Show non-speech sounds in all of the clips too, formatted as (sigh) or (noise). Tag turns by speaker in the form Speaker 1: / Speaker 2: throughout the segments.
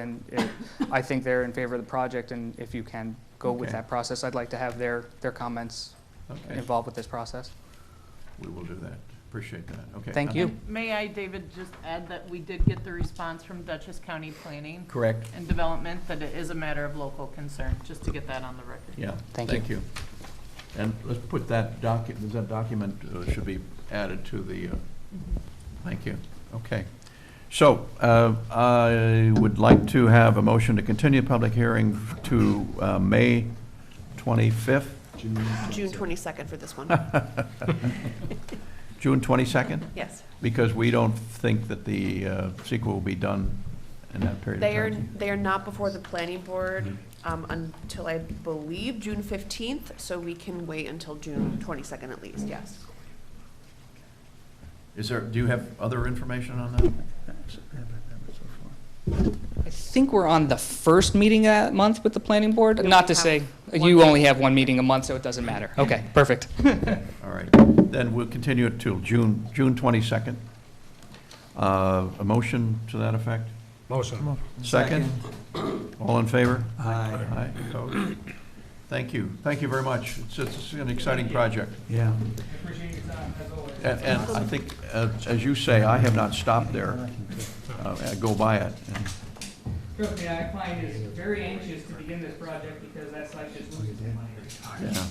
Speaker 1: And it- I think they're in favor of the project, and if you can go with
Speaker 2: Okay.
Speaker 1: that process, I'd like to have their, their comments
Speaker 2: Okay,
Speaker 1: involved with this process.
Speaker 2: we will do that. Appreciate that. Okay.
Speaker 1: Thank
Speaker 2: uh,
Speaker 1: you.
Speaker 3: And May I, David, just add that we did get the response from Dutchess County Planning
Speaker 2: Correct.
Speaker 3: and Development that it is a matter of local concern, just to get that on the record.
Speaker 2: Yeah.
Speaker 1: Thank
Speaker 2: Thank you. And let's put that document, that document uh, should be added to the, uh,
Speaker 4: Mm-hmm.
Speaker 2: thank you. Okay. So uh, I would like to have a motion to continue public hearing to uh, May 25th,
Speaker 5: June 22nd for this one,
Speaker 2: (laughs) June 22nd?
Speaker 5: yes.
Speaker 2: Because we don't think that the uh, sequel will be done in that period of
Speaker 5: They are,
Speaker 2: time.
Speaker 5: they are not before the planning board
Speaker 2: Mm-hmm.
Speaker 5: um, until, I believe, June 15th, so we can wait until June 22nd at least, yes.
Speaker 2: Is there, do you have other information on that?
Speaker 1: I think we're on the first meeting of that month with the planning board,
Speaker 5: We
Speaker 1: not
Speaker 5: only
Speaker 1: to say,
Speaker 5: have one
Speaker 1: you only have one meeting a month, so it doesn't matter. Okay, perfect.
Speaker 2: All right, then we'll continue it till June, June 22nd. Uh, A motion to that effect?
Speaker 6: Motion.
Speaker 2: Second? All in favor?
Speaker 6: Aye.
Speaker 2: Aye, opposed? Thank you, thank you very much. It's, it's an exciting project.
Speaker 6: Yeah.
Speaker 2: And, and I think, uh, as you say, I have not stopped there. Uh, I go by it. and-
Speaker 1: Trust me, our client is very anxious to begin this project because that site just loses money.
Speaker 2: yeah.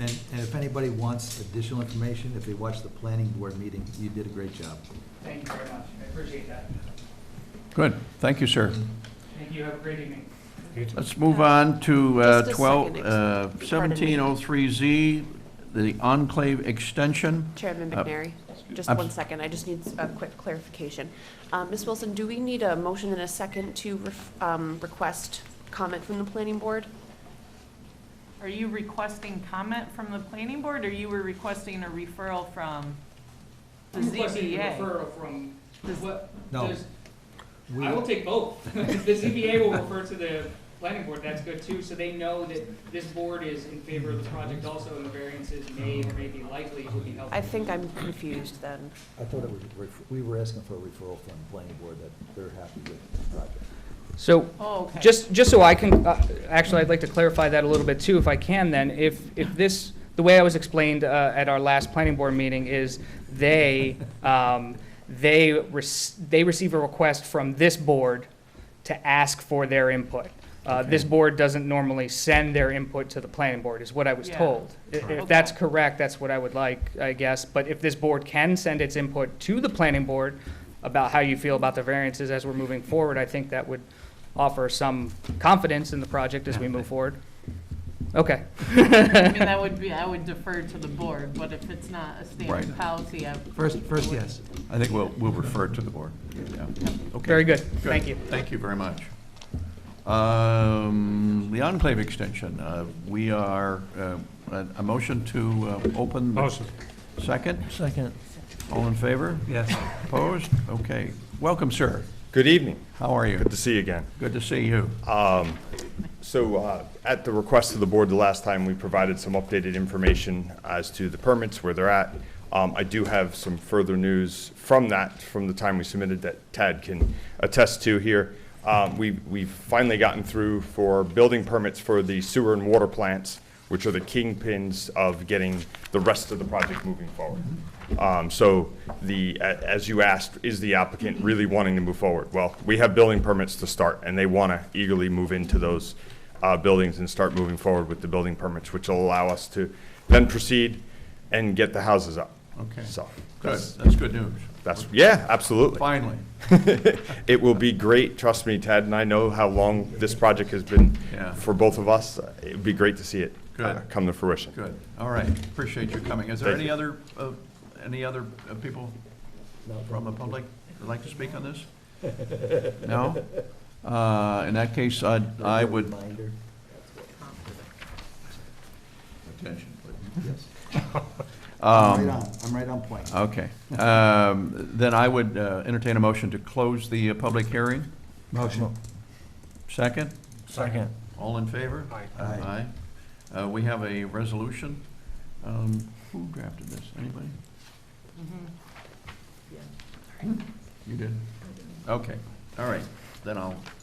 Speaker 6: And, and if anybody wants additional information, if they watch the planning board meeting, you did a great job.
Speaker 1: Thank you very much, I appreciate that.
Speaker 2: Good, thank you, sir.
Speaker 1: Thank you, have a great evening.
Speaker 2: Let's move on to uh,
Speaker 5: Just a
Speaker 2: 12,
Speaker 5: second,
Speaker 2: uh,
Speaker 5: ex- pardon me.
Speaker 2: 1703Z, the enclave extension.
Speaker 5: Chairman
Speaker 2: Uh,
Speaker 5: McNary, just
Speaker 2: I'm
Speaker 5: one second, I just need a quick clarification. Um, Ms. Wilson, do we need a motion and a second to ref- um, request comment from the planning board?
Speaker 3: Are you requesting comment from the planning board, or you were requesting a referral from the
Speaker 4: I'm requesting a
Speaker 3: ZBA?
Speaker 4: referral from,
Speaker 3: Does-
Speaker 4: what,
Speaker 6: No.
Speaker 4: does-
Speaker 6: We-
Speaker 4: I will take both. (laughs) If The ZBA will refer to the planning board, that's good too, so they know that this board is in favor of the project also, and the variances may or may be likely would be helpful.
Speaker 5: I think I'm confused then.
Speaker 6: I thought it was, ref- we were asking for a referral from the planning board that they're happy with the project.
Speaker 1: So,
Speaker 3: Oh, okay.
Speaker 1: Just, just so I can, uh, actually, I'd like to clarify that a little bit too, if I can then. If, if this, the way I was explained uh, at our last planning board meeting is they, um, they, rec- they receive a request from this board to ask for their input. Uh, This board doesn't normally send their input to the planning board, is what I was
Speaker 3: Yeah.
Speaker 1: told. I- If
Speaker 3: Correct.
Speaker 1: that's
Speaker 3: Okay.
Speaker 1: correct, that's what I would like, I guess. But if this board can send its input to the planning board about how you feel about the variances as we're moving forward, I think that would offer some confidence in the project as we move forward. Okay.
Speaker 3: I mean, that would be, I would defer to the board, but if it's not a
Speaker 2: Right.
Speaker 3: standard policy, I.
Speaker 6: First, first, yes.
Speaker 2: I think we'll, we'll refer it to the board. Yeah. Okay.
Speaker 1: Very good. Thank you.
Speaker 2: Thank you very much. Um, The enclave extension, uh, we are, uh, a a motion to uh, open. Motion. Second? Second. All in favor?
Speaker 6: Yes.
Speaker 2: Opposed? Okay. Welcome, sir.
Speaker 7: Good evening.
Speaker 2: How are you?
Speaker 7: Good to uh, see you again.
Speaker 2: Good to see you.
Speaker 7: So uh, at the request of the board, the last time, we provided some updated information as to the permits, where they're at. Um, I do have some further news from that, from the time we submitted that Tad can attest to here. Um, we- We've finally gotten through for building permits for the sewer and water plants, which are the kingpins of getting the rest of the project moving forward.
Speaker 2: Mm-hmm.
Speaker 7: Um, So the, a- as you asked, is the applicant really wanting to move forward? Well, we have building permits to start, and they want to eagerly move into those uh, buildings and start moving forward with the building permits, which will allow us to then proceed and get the houses up.
Speaker 2: Okay.
Speaker 7: So,
Speaker 2: Good.
Speaker 7: that's,
Speaker 2: That's good news.
Speaker 7: that's, yeah, absolutely.
Speaker 2: Finally.
Speaker 7: It will be great, trust me, Ted, and I know how long this project has been
Speaker 2: Yeah.
Speaker 7: for both of us. It'd be great to see it uh,
Speaker 2: Good.
Speaker 7: come to fruition.
Speaker 2: Good. All right. Appreciate you coming. Is there
Speaker 7: Thank
Speaker 2: any
Speaker 7: you.
Speaker 2: other, uh, any other uh, people from the public that'd like to speak on this?
Speaker 6: (laughs)
Speaker 2: No? Uh, In that case, I, I would.
Speaker 6: Reminder.
Speaker 2: Attention, please.
Speaker 6: Yes. I'm
Speaker 2: (laughs) Um,
Speaker 6: right on, I'm right on point.
Speaker 2: Okay. Um, Then I would uh, entertain a motion to close the uh, public hearing.
Speaker 6: Motion.
Speaker 2: Second?
Speaker 6: Second.
Speaker 2: All in favor?
Speaker 6: Aye. Aye.
Speaker 2: Aye. Uh, We have a resolution. Um, Who drafted this? Anybody? You did? Okay, all right. then I'll